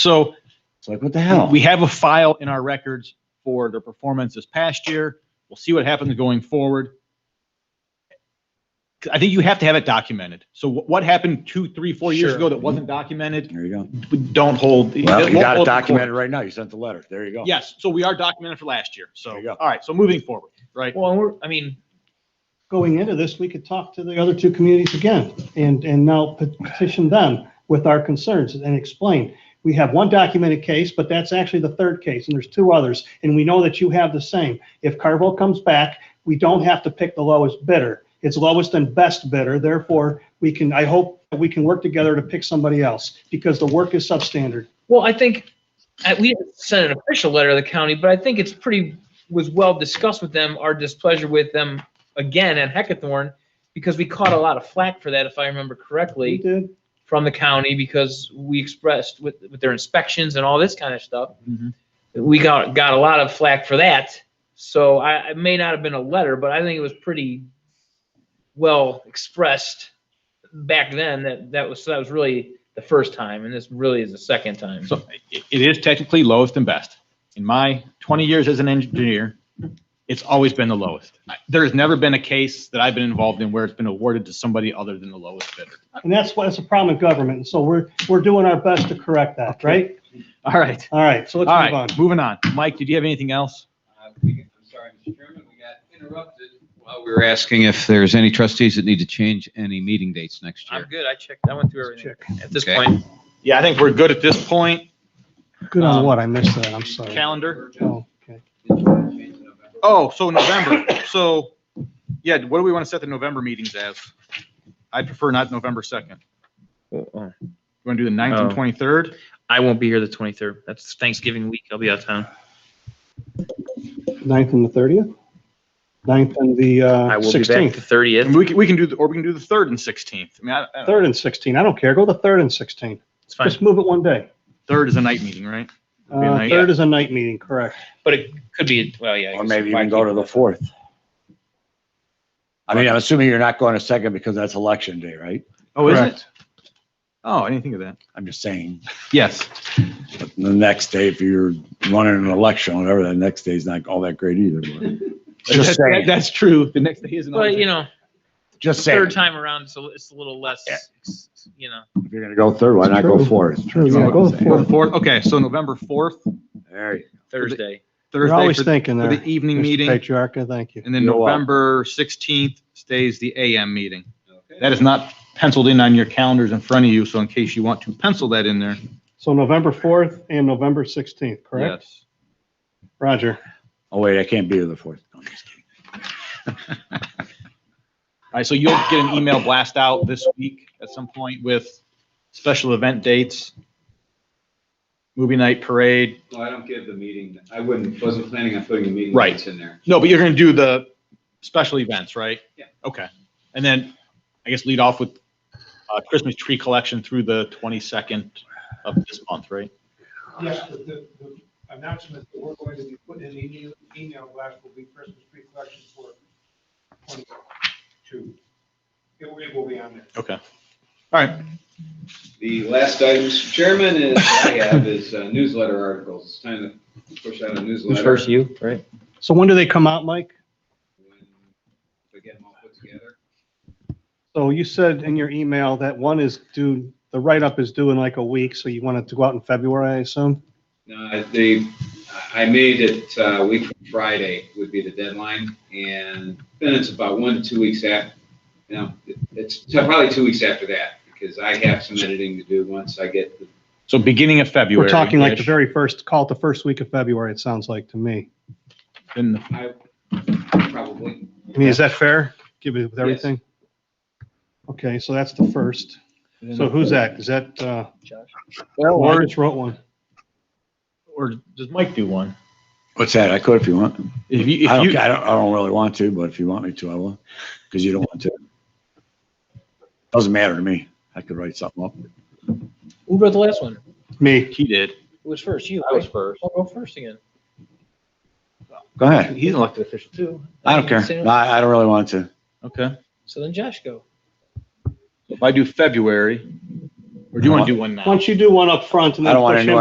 So It's like, what the hell? we have a file in our records for their performance this past year. We'll see what happens going forward. I think you have to have it documented. So wh- what happened two, three, four years Sure. ago that wasn't documented, There you go. don't hold. Well, won't you got hold it the court. documented right now. You sent the letter. There you go. Yes, so we are documented for last year. So, There you go. all right, so moving forward, right? Well, we're, I mean, going into this, we could talk to the other two communities again and, and now petition them with our concerns and explain. We have one documented case, but that's actually the third case, and there's two others, and we know that you have the same. If Carville comes back, we don't have to pick the lowest bidder. It's lowest and best bidder, therefore, we can, I hope that we can work together to pick somebody else, because the work is substandard. well, I think, uh, we didn't send an official letter to the county, but I think it's pretty, was well discussed with them, our displeasure with them again at Hackathorn, because we caught a lot of flack for that, if I remember We correctly, did, from the county, because we expressed with, with their inspections and all this kind of stuff. Mm-hmm. Mhm. We got, got a lot of flack for that, so I, it may not have been a letter, but I think it was pretty well expressed back then, that, that was, so that was really the first time, and this really is the second time. So i- it is technically lowest and best. In my 20 years as an engineer, it's always been the lowest. I- There has never been a case that I've been involved in where it's been awarded to somebody other than the lowest bidder. and that's why it's a problem in government, and so we're, we're doing our best to correct that, right? All right, All right, so all let's move on. right, moving on. Mike, did you have anything else? Uh, we- I'm sorry, Mr. Chairman, we got interrupted while we were asking if there's any trustees that need to change any meeting dates next I'm year. good. I checked. I went through everything at this Okay. point. Yeah, I think we're good at this point. Good Um, on what? I missed that. I'm sorry. Calendar. Oh, okay. Did you want to change the November? Oh, so November. So, yeah, what do we want to set the November meetings as? I prefer not November 2nd. You want to do the 9th and Oh. 23rd? I won't be here the 23rd. That's Thanksgiving week. I'll be out of town. Ninth and the thirtieth? Ninth and the I uh, will be back the sixteenth? 30th. And we can, we can do, the or we can do the 3rd and 16th. I mean, I- I, Third and sixteen. I don't care. Go the third and sixteen. It's fine. Just move it one day. 3rd is a night meeting, right? It'll be a Uh, night- third is a night meeting, correct? But it could be, well, yeah. I Or guess maybe if I even go keep- to the fourth. I mean, I'm assuming you're not going to second because that's election day, right? Oh, is it? Correct. Oh, I didn't think of that. I'm just saying, Yes. but the next day, if you're running an election, whatever, the next day's not all that great either. but- Just That- saying, That's true. The next day is another. But, day. you know, just saying. third time around, it's a, it's a little less, you know. If you're gonna go third, why not go True. fourth? True, That's all yeah, I'm go the saying. Or the fourth, okay, so November 4th, There you Thursday. You're Thursday always for thinking for there. the evening Mr. meeting, Patriarca, thank you. and then You're welcome. November 16th stays the AM meeting. Okay. That is not penciled in on your calendars in front of you, so in case you want to pencil that in there. So November fourth and November sixteenth, correct? Yes. Roger. Oh, wait, I can't be here the fourth. No, I'm just kidding. All right, so you'll get an email blast out this week at some point with special event dates, movie night parade. No, I don't give the meeting, I wouldn't, wasn't planning on putting the meeting Right. dates in there. No, but you're going to do the special events, right? Yeah. Okay. And then I guess lead off with uh, Christmas tree collection through the 22nd of this month, right? Yes, the, the the announcement that we're going to be putting in the email- email blast will be Christmas tree collection for twenty-two. It will, it will be on there. Okay. All right. The last item, Mr. Chairman, is, I have is uh, newsletter articles. It's time to push out a newsletter. you, right? So when do they come out, Mike? When we get them all put together. So you said in your email that one is due, the write-up is due in like a week, so you want it to go out in February, I assume? No, they, I made it, uh, week from Friday would be the deadline, and then it's about one, to two weeks after. No, it's probably two weeks after that, because I have some editing to do once I get the So beginning of February. We're talking like the very first, call it the first week of February, it sounds like to me. In I probably, I mean, is that fair? Give it with everything? Okay, so that's the first. So who's that? Is that, uh, well, I just wrote one. Or does Mike do one? What's that? I could if you want. If you, I if don't, you, I don't, I don't really want to, but if you want me to, I will, because you don't want to. Doesn't matter to me. I could write something up. Who wrote the last one? Me. he did. Who was first? You. I was first. I'll go first again. Go ahead. He's an elected official. Two. I don't care. No, I, I don't really want to. Okay. So then Josh go. If I do February, or do you want to do one now? Why don't you do one up front and I then don't want push him anyone